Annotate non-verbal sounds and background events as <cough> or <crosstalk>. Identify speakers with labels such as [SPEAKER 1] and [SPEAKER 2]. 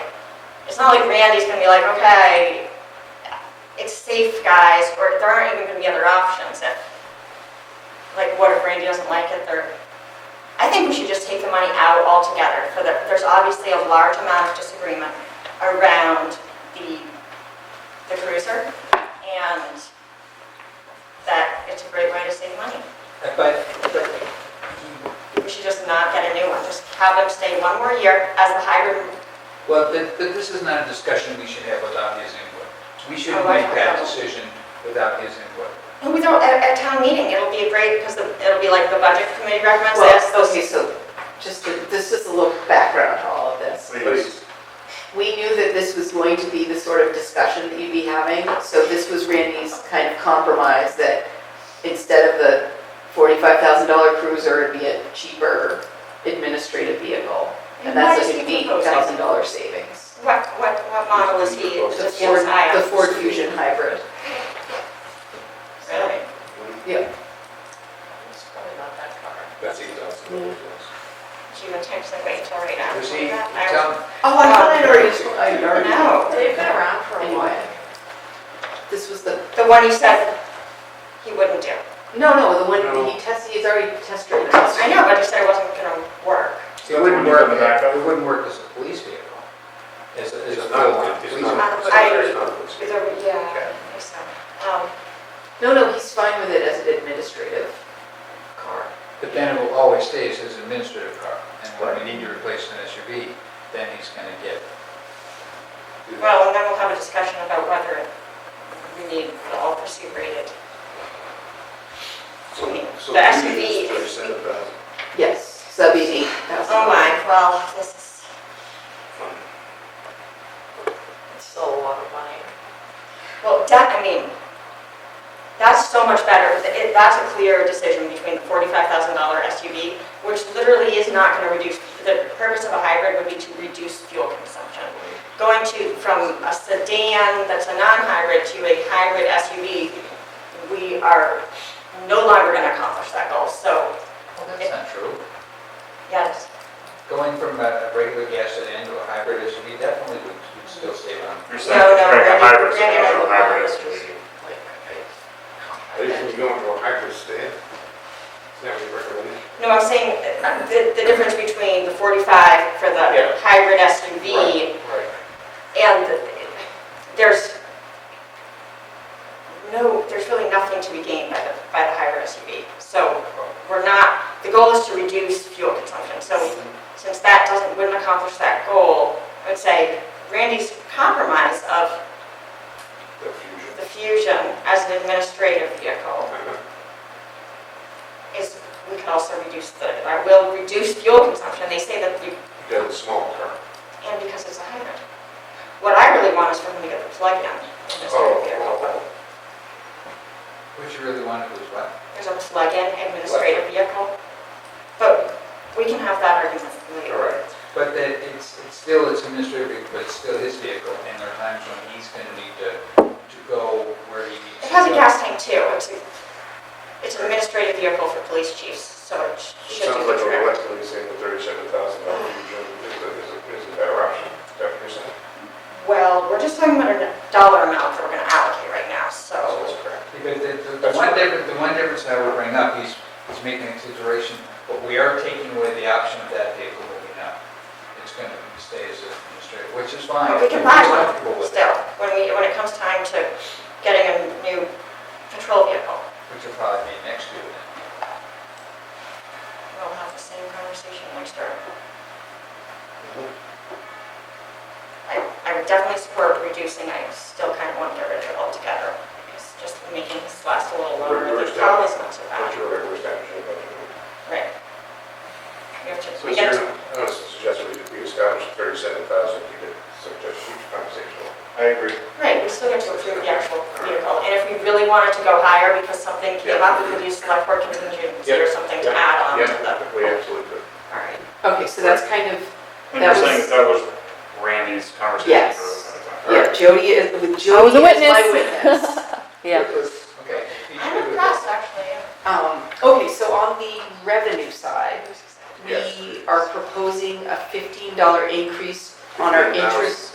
[SPEAKER 1] It's not like Randy's gonna be like, okay, it's safe, guys, or there aren't even gonna be other options. If, Like, what if Randy doesn't like it, There, I think we should just take the money out altogether for the, there's obviously a large amount of disagreement around the, the cruiser, and that it's a great way to save money.
[SPEAKER 2] But, but
[SPEAKER 1] We should just not get a new one, just have them stay one more year as the hybrid
[SPEAKER 2] Well, th- th- this is not a discussion we should have without his input. We shouldn't
[SPEAKER 1] Oh, I
[SPEAKER 2] make that
[SPEAKER 1] know.
[SPEAKER 2] decision without his input.
[SPEAKER 1] No, we don't, at, at town meeting, it'll be a great, because it'll be like the budget committee recommends this,
[SPEAKER 3] Well,
[SPEAKER 1] those,
[SPEAKER 3] okay, so just, to- this is a little background to all of this.
[SPEAKER 2] Please.
[SPEAKER 3] We knew that this was going to be the sort of discussion that you'd be having, so this was Randy's kind of compromise that instead of the forty-five thousand dollar cruiser, it'd be a cheaper administrative vehicle. And
[SPEAKER 1] Why
[SPEAKER 3] that's
[SPEAKER 1] is
[SPEAKER 3] like
[SPEAKER 1] he
[SPEAKER 3] an eight
[SPEAKER 1] proposing?
[SPEAKER 3] thousand dollar savings.
[SPEAKER 1] what, what, what model is he, is
[SPEAKER 3] The
[SPEAKER 1] this
[SPEAKER 3] Ford,
[SPEAKER 1] yours, I?
[SPEAKER 3] the Ford Fusion hybrid.
[SPEAKER 1] Really?
[SPEAKER 3] Yeah.
[SPEAKER 1] It's probably not that car.
[SPEAKER 2] That's eight thousand. Does
[SPEAKER 1] Do you intend to wait till right now?
[SPEAKER 2] he
[SPEAKER 1] I-
[SPEAKER 2] tell,
[SPEAKER 3] Oh, I thought I'd already, I already.
[SPEAKER 1] No.
[SPEAKER 3] They've been around for a while. This was the
[SPEAKER 1] The one he said he wouldn't do.
[SPEAKER 3] No, no, the one that he tested, he's already test driven. it.
[SPEAKER 1] I know, but he said it wasn't gonna work.
[SPEAKER 2] it wouldn't work, it wouldn't work as a police vehicle. As a, as a
[SPEAKER 4] It's
[SPEAKER 2] full-on
[SPEAKER 4] not, it's
[SPEAKER 2] police
[SPEAKER 4] not.
[SPEAKER 2] vehicle.
[SPEAKER 4] it's
[SPEAKER 1] I-
[SPEAKER 4] not- it's not-
[SPEAKER 1] Is there, yeah, I think so. Um,
[SPEAKER 3] No, no, he's fine with it as an administrative car.
[SPEAKER 2] But then it will always stay as his administrative car. And when we need to replace an SUV, then he's going to get,
[SPEAKER 1] well, and then we'll have a discussion about whether we need the all pursuit rated.
[SPEAKER 4] So- so
[SPEAKER 1] The
[SPEAKER 4] we
[SPEAKER 1] SUV
[SPEAKER 4] use
[SPEAKER 1] is-
[SPEAKER 4] 37,000
[SPEAKER 3] Yes, so that'd be an eight thousand.
[SPEAKER 1] Oh my, well, this is.
[SPEAKER 4] fund.
[SPEAKER 1] It's still a lot of money. Well, that, I mean, that's so much better. Th- it- That's a clear decision between the forty-five thousand dollar SUV, which literally is not gonna reduce, the purpose of a hybrid would be to reduce fuel consumption. Going to, from a sedan that's a non-hybrid to a hybrid SUV, we are no longer gonna accomplish that goal, so,
[SPEAKER 2] well, that's not true.
[SPEAKER 1] yes.
[SPEAKER 2] Going from a a regular gas sedan to a hybrid SUV definitely would would still save on
[SPEAKER 5] You're
[SPEAKER 1] No,
[SPEAKER 5] saying
[SPEAKER 1] no,
[SPEAKER 5] comparing
[SPEAKER 1] Randy-
[SPEAKER 5] a hybrid to
[SPEAKER 1] Randy
[SPEAKER 5] an
[SPEAKER 1] Rhodes.
[SPEAKER 5] actual hybrid SUV.
[SPEAKER 4] Are you going to go into a hybrid stand? Is that what you recommend?
[SPEAKER 1] No, I'm saying uh, the, the difference between the 45 for the
[SPEAKER 4] Yeah.
[SPEAKER 1] hybrid SUV
[SPEAKER 4] Right.
[SPEAKER 1] and the- there's no, there's really nothing to be gained by the, by the hybrid SUV. So we're not, the goal is to reduce fuel consumption. So since that doesn't, wouldn't accomplish that goal, I would say Randy's compromise of
[SPEAKER 4] The fusion.
[SPEAKER 1] the Fusion as an administrative vehicle is, we could also reduce the, I will reduce fuel consumption. They say that you
[SPEAKER 4] You got a small car.
[SPEAKER 1] and because it's a hybrid. What I really want is for him to get the plug-in. in this
[SPEAKER 4] Oh,
[SPEAKER 1] vehicle.
[SPEAKER 2] What you really wanted was what?
[SPEAKER 1] There's a plug-in administrative vehicle, but we can have that argument later.
[SPEAKER 4] All right.
[SPEAKER 2] But that it's, it's still, it's administrative, vehicle, but it's still his vehicle, and there are times when he's gonna need to, to go where he needs
[SPEAKER 1] It
[SPEAKER 2] to go.
[SPEAKER 1] has a gas tank too. It's, a- it's an administrative vehicle for police chiefs, so it sh-
[SPEAKER 4] It
[SPEAKER 1] should
[SPEAKER 4] sounds
[SPEAKER 1] do the
[SPEAKER 4] like we're
[SPEAKER 1] trick.
[SPEAKER 4] collectively saying the thirty-seven thousand dollar fusion is a, is a, is a better option. Is that what you're saying?
[SPEAKER 1] Well, we're just talking about a dollar amount that we're gonna allocate right now,
[SPEAKER 4] So
[SPEAKER 1] so.
[SPEAKER 4] it's correct.
[SPEAKER 2] Because the, the- the one difference, the one difference I would bring up, he's, he's making a consideration, but we are taking away the option of that vehicle that we know. It's gonna stay as administrative, which is fine.
[SPEAKER 1] But we can
[SPEAKER 2] We're
[SPEAKER 1] buy one
[SPEAKER 2] comfortable with
[SPEAKER 1] still,
[SPEAKER 2] that,
[SPEAKER 1] when we, when it comes time to getting a new patrol vehicle.
[SPEAKER 2] Which will probably be next year then.
[SPEAKER 1] We'll have the same conversation next year. I, I would definitely support reducing, I still kind of want to get rid of it altogether. It's just making this last a little longer,
[SPEAKER 4] We're- we're
[SPEAKER 1] the problem is not so
[SPEAKER 4] But
[SPEAKER 1] bad.
[SPEAKER 4] you're right, we're establishing a budget.
[SPEAKER 1] Right. We have to,
[SPEAKER 4] So
[SPEAKER 1] we
[SPEAKER 4] is
[SPEAKER 1] get
[SPEAKER 4] your,
[SPEAKER 1] to,
[SPEAKER 4] I would suggest we we establish thirty-seven thousand, you could suggest huge compensation.
[SPEAKER 5] I agree.
[SPEAKER 1] right, we still get to approve the actual vehicle. And if we really wanted to go higher because something came up, we could use select board contingent, consider something to add on to the.
[SPEAKER 4] Yeah, we absolutely could.
[SPEAKER 1] All right.
[SPEAKER 3] Okay, so that's kind of,
[SPEAKER 5] And
[SPEAKER 3] That
[SPEAKER 5] you're saying
[SPEAKER 3] was-
[SPEAKER 5] that that was Randy's conversation.
[SPEAKER 3] Yes.
[SPEAKER 5] for-
[SPEAKER 3] yeah, Jody is, with
[SPEAKER 6] I was
[SPEAKER 3] Jody
[SPEAKER 6] a
[SPEAKER 3] is my
[SPEAKER 6] witness. <laughs>
[SPEAKER 3] witness.
[SPEAKER 6] Yeah.
[SPEAKER 2] Okay.
[SPEAKER 1] I'm impressed, actually.
[SPEAKER 3] Um, okay, so on the revenue side,
[SPEAKER 4] Yes.
[SPEAKER 3] we are proposing a fifteen dollar increase on our
[SPEAKER 4] $15.
[SPEAKER 3] interest